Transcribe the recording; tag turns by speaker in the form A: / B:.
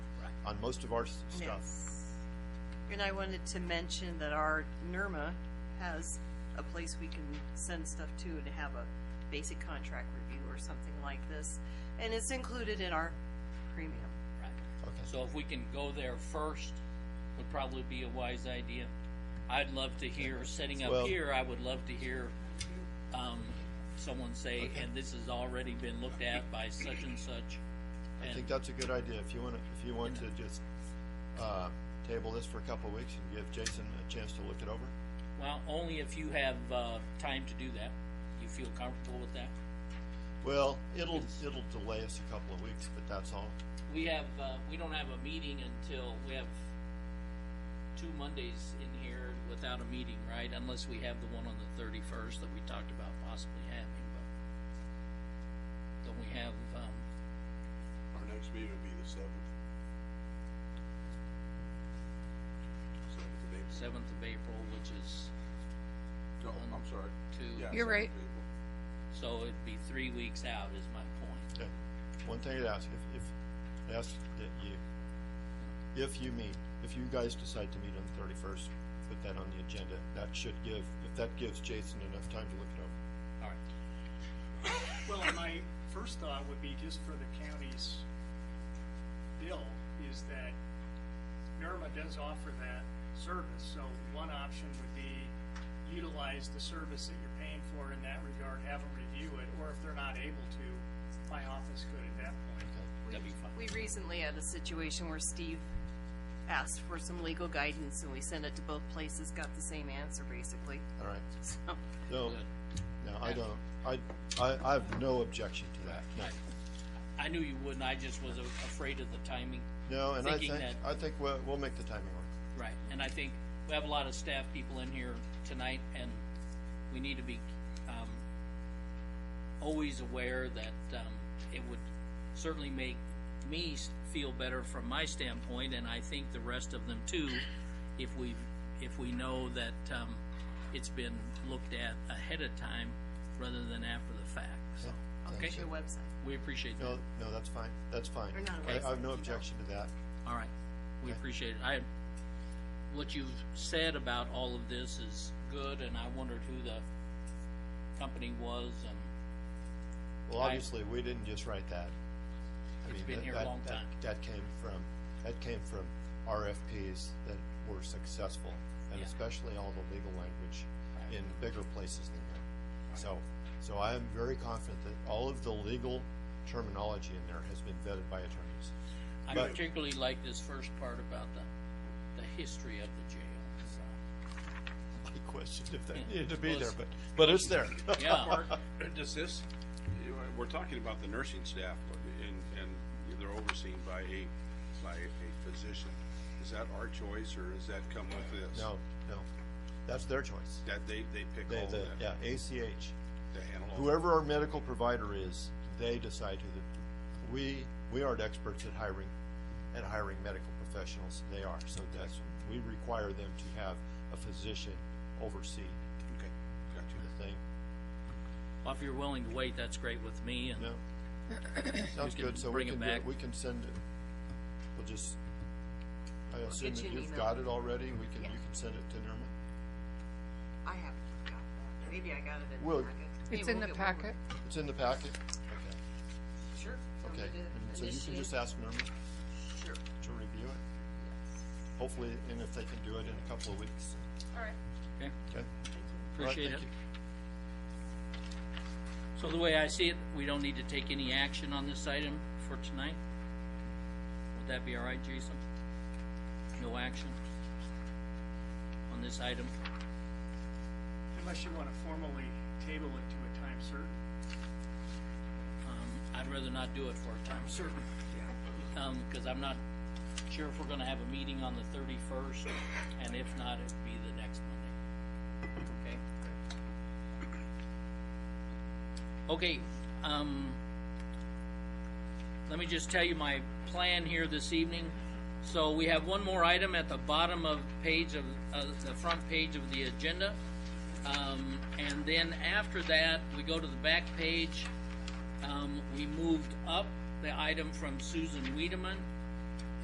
A: on most of our s- stuff.
B: Yes. And I wanted to mention that our NERMA has a place we can send stuff to to have a basic contract review or something like this. And it's included in our premium.
C: Right.
A: Okay,
C: So if we can go there first, would probably be a wise idea. I'd love to hear, setting up
A: Well-
C: here, I would love to hear, um, someone say, and this has already been looked at by such and such.
A: I think
C: And,
A: that's a good idea. If you want to, if you want to just, uh, table this for a couple of weeks and give Jason a chance to look it over.
C: well, only if you have, uh, time to do that. You feel comfortable with that?
A: Well, it'll, it'll delay us a couple of weeks, but that's all.
C: We have, uh, we don't have a meeting until, we have two Mondays in here without a meeting, right? Unless we have the one on the thirty-first that we talked about possibly having, but don't we have, um,
D: Our next meeting will be the seventh. Seventh of April.
C: seventh of April, which is
D: No, I'm sorry.
C: two,
D: Yeah,
E: You're
D: 7th
E: right.
D: of April.
C: so it'd be three weeks out is my point.
A: Okay, one thing I'd ask, if, if, ask that you, if you meet, if you guys decide to meet on the thirty-first, put that on the agenda, that should give, if that gives Jason enough time to look it over.
C: All right.
F: Well, my first thought would be just for the county's bill is that NERMA does offer that service, so one option would be utilize the service that you're paying for in that regard, have them review it, or if they're not able to, my office could at that point.
B: We-
C: That'd be fine.
B: We recently had a situation where Steve asked for some legal guidance and we sent it to both places, got the same answer basically.
A: All right,
B: So,
A: so,
C: Good.
A: no, I don't, I, I, I have no objection to that, no.
C: I knew you wouldn't, I just was a- afraid of the timing.
A: No, and I
C: Thinking
A: think,
C: that-
A: I think we'll, we'll make the timing work.
C: Right, and I think we have a lot of staff people in here tonight, and we need to be, um, always aware that, um, it would certainly make me s- feel better from my standpoint, and I think the rest of them too, if we, if we know that, um, it's been looked at ahead of time rather than after the fact, so,
A: Yeah,
C: okay?
A: that's
B: the
A: it.
B: website.
C: We appreciate
A: No,
C: that,
A: no, that's fine, that's fine.
B: Or not a
A: I, I have
B: website,
A: no objection to that.
C: all right, we appreciate it, I, what you've said about all of this is good, and I wondered who the company was, and
A: Well,
C: I-
A: obviously, we didn't just write that. I
C: It's
A: mean,
C: been
A: that-
C: here a
A: that-
C: long
A: that-
C: time.
A: That came from, that came from RFPs that were successful, and
C: Yeah.
A: especially all the legal language
C: Right.
A: in bigger places than here. So, so I am very confident that all of the legal terminology in there has been vetted by attorneys.
C: I
A: But-
C: particularly like this first part about the, the history of the jail, so.
A: I questioned if that
C: Yeah.
A: needed to be
C: Well,
A: there,
C: it's-
A: but, but it's there.
C: Yeah,
D: Uh, Does this, you know, we're talking about the nursing staff and, and they're overseen by a, by a physician. Is that our choice or does that come with this?
A: No, no, that's their choice.
D: That they, they pick
A: They,
D: all of
A: the,
D: that?
A: yeah, ACH.
D: They handle all that?
A: whoever our medical provider is, they decide who the, we, we aren't experts at hiring, at hiring medical professionals, they are, so that's, we require them to have a physician oversee
D: Okay, got you.
A: the thing,
C: well, if you're willing to wait, that's great with me, and,
A: no? Sounds
C: can
A: good, so we
C: bring it
A: can, do it.
C: back.
A: we can send it, we'll just, I assume
B: get you
A: that
B: an
A: you've
B: email.
A: got it already, we can, you
B: Yeah.
A: can send it to Norman.
B: I haven't got that. Maybe I got it in
A: Well-
B: the packet.
E: It's
B: Maybe
E: in
B: we'll
E: the
B: get one more.
E: packet.
A: It's in the packet?
B: Sure. Want me
A: Okay, okay,
B: to
A: And so you can
B: initiate?
A: just ask Norman
B: Sure.
A: to review it, hopefully, and if they can do it in a couple of weeks,
B: All right.
C: okay,
A: okay? All right,
C: appreciate it.
A: thank you.
C: So the way I see it, we don't need to take any action on this item for tonight? Would that be all right, Jason? No action on this item?
F: Unless you want to formally table it to a time certain.
C: Um, I'd rather not do it for a time certain. Um, cause I'm not sure if we're gonna have a meeting on the thirty-first, and if not, it'd be the next Monday. Okay? Okay, um, let me just tell you my plan here this evening. So we have one more item at the bottom of page of, uh, the front page of the agenda. Um, and then after that, we go to the back page, um, we moved up the item from Susan Wiedemann